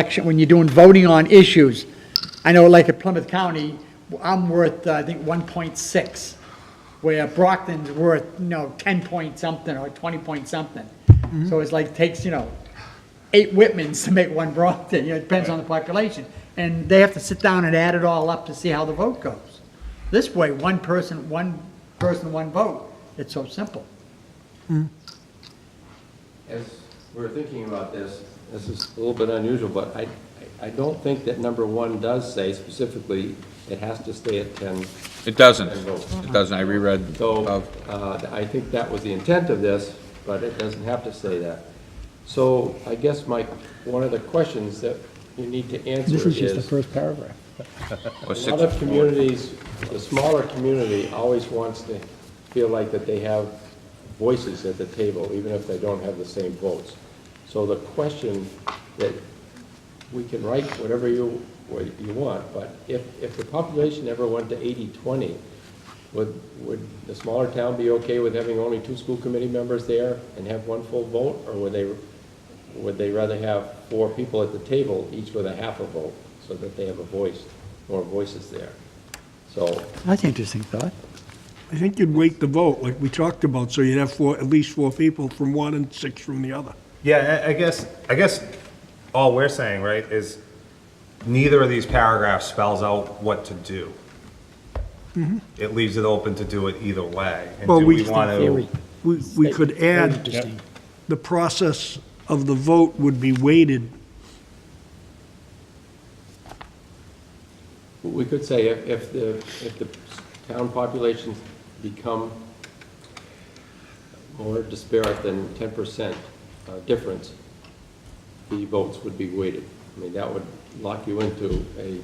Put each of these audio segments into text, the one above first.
section, when you're doing voting on issues, I know like at Plymouth County, I'm worth, uh, I think, 1.6, where Brockton's worth, you know, 10 point something or 20 point something. So it's like, takes, you know, eight Whitmans to make one Brockton, you know, it depends on the population. And they have to sit down and add it all up to see how the vote goes. This way, one person, one person, one vote, it's so simple. As we're thinking about this, this is a little bit unusual, but I, I don't think that number one does say specifically it has to stay at ten. It doesn't. And vote. It doesn't. I reread So, of, uh, I think that was the intent of this, but it doesn't have to say that. So I guess my, one of the questions that you need to answer This is just the is, first paragraph. was a six lot of four. communities, the smaller community always wants to feel like that they have voices at the table, even if they don't have the same votes. So the question that, we can write whatever you, what you want, but if, if the population ever went to 80-20, would, would the smaller town be okay with having only two school committee members there and have one full vote? Or would they, would they rather have four people at the table, each with a half a vote, so that they have a voice, more voices there? So, That's an interesting thought. I think you'd weight the vote, like we talked about, so you'd have four, at least four people from one and six from the other. Yeah, I- I guess, I guess all we're saying, right, is neither of these paragraphs spells out what to do. It leaves it open to do it either way. Mm-hmm. And Well, do we we just- want to, We, we could add, Interesting. the process of the vote would be weighted. we could say if, if the, if the town populations become more disparate than ten percent uh, difference, the votes would be weighted. I mean, that would lock you into a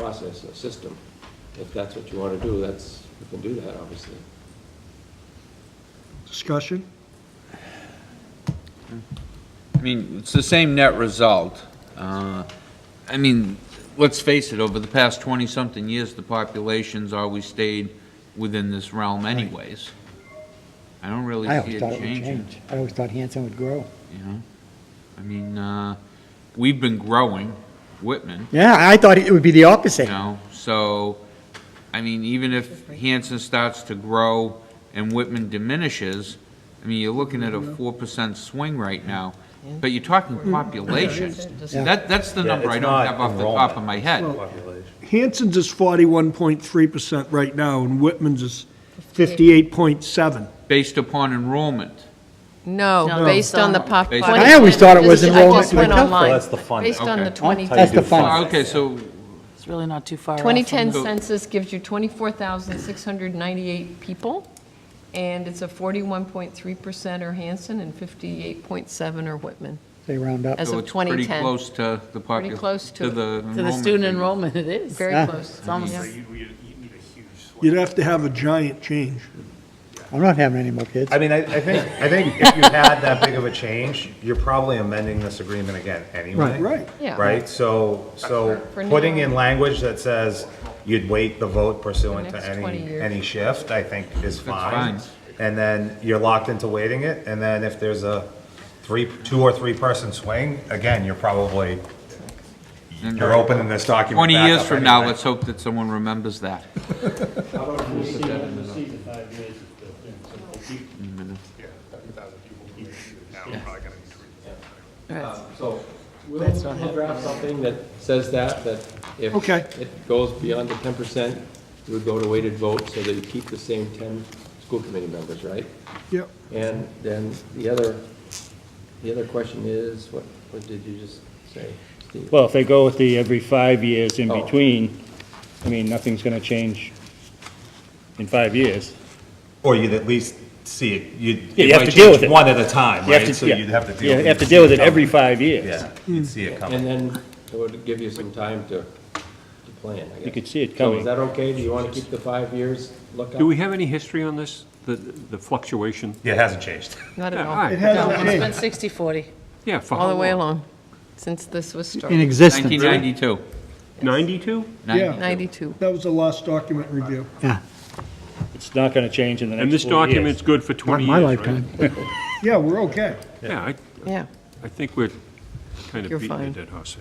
process, a system. If that's what you want to do, that's, you can do that, obviously. Discussion? I mean, it's the same net result. Uh, I mean, let's face it, over the past 20-something years, the population's always stayed within this realm anyways. I don't really I always see it thought it would changing, change. I always thought Hanson would grow. you know? I mean, uh, we've been growing, Whitman, Yeah, I thought it would be the opposite. You know, so, I mean, even if Hanson starts to grow and Whitman diminishes, I mean, you're looking at a four percent swing right now, but you're talking population. Yeah. That, that's the Yeah, number I it's don't not have off the top of enrollment. my head. population. Hanson's is forty-one point three percent right now, and Whitman's is fifty-eight point seven. Based upon enrollment, No, based on the pop. Based I always thought it was I enrollment just went with online. That's the fund. Based on the Okay. 20, That's the fun. okay, so, It's really not too far off. from 2010 So- census gives you 24,698 people, and it's a 41.3% are Hanson and 58.7 are Whitman. They round up. As so of it's pretty 2010. close to the Pretty close population, to to it. the the- enrollment. To the student figure. enrollment, it is. Yeah. Very close. It's almost- Yeah. You'd have to have a giant change. I'm not having any more kids. I mean, I, I think, I think if you had that big of a change, you're probably amending this agreement again anyway. Right. Right. Yeah. Right, so, so For now. putting in language that says you'd wait the vote pursuant The to next 20 any, years. any shift, I think is fine. fine. And then you're locked into waiting it, and then if there's a three, two or three person swing, again, you're probably, you're opening this document Twenty back years up from now, anyway. let's hope that someone remembers that. Right. So we'll we'll draft something that says that, that if Okay. it goes beyond the ten percent, you would go to weighted vote so that you keep the same ten school committee members, right? Yep. And then the other, the other question is, what, what did you just say, Steve? Well, if they go with the every five years in Oh. between, I mean, nothing's going to change in five years. Or you'd at least see it, you'd. Yeah, you it have might to deal change with it. One at a time, You have right? to- So yeah. you'd have to deal Yeah, with it. You have to deal with it every five years. Yeah, you'd see it coming. And then it would give you some time to, to plan, I guess. You could see it So is coming. that okay? Do you want to keep the five years lookout? Do we have any history on this, the the fluctuation? Yeah, it hasn't changed. Not at Yeah, all all. right. It's been 60/40. Yeah, for All how the way long? along, since this was In started. existence. Nineteen ninety-two. 92? Yeah. 92. That was the last document review. It's not going to change in the And next this four years. document's good for 20 years, right? Yeah, we're okay. Yeah, I Yeah. I think we're Kind You're of beating fine. a dead horse.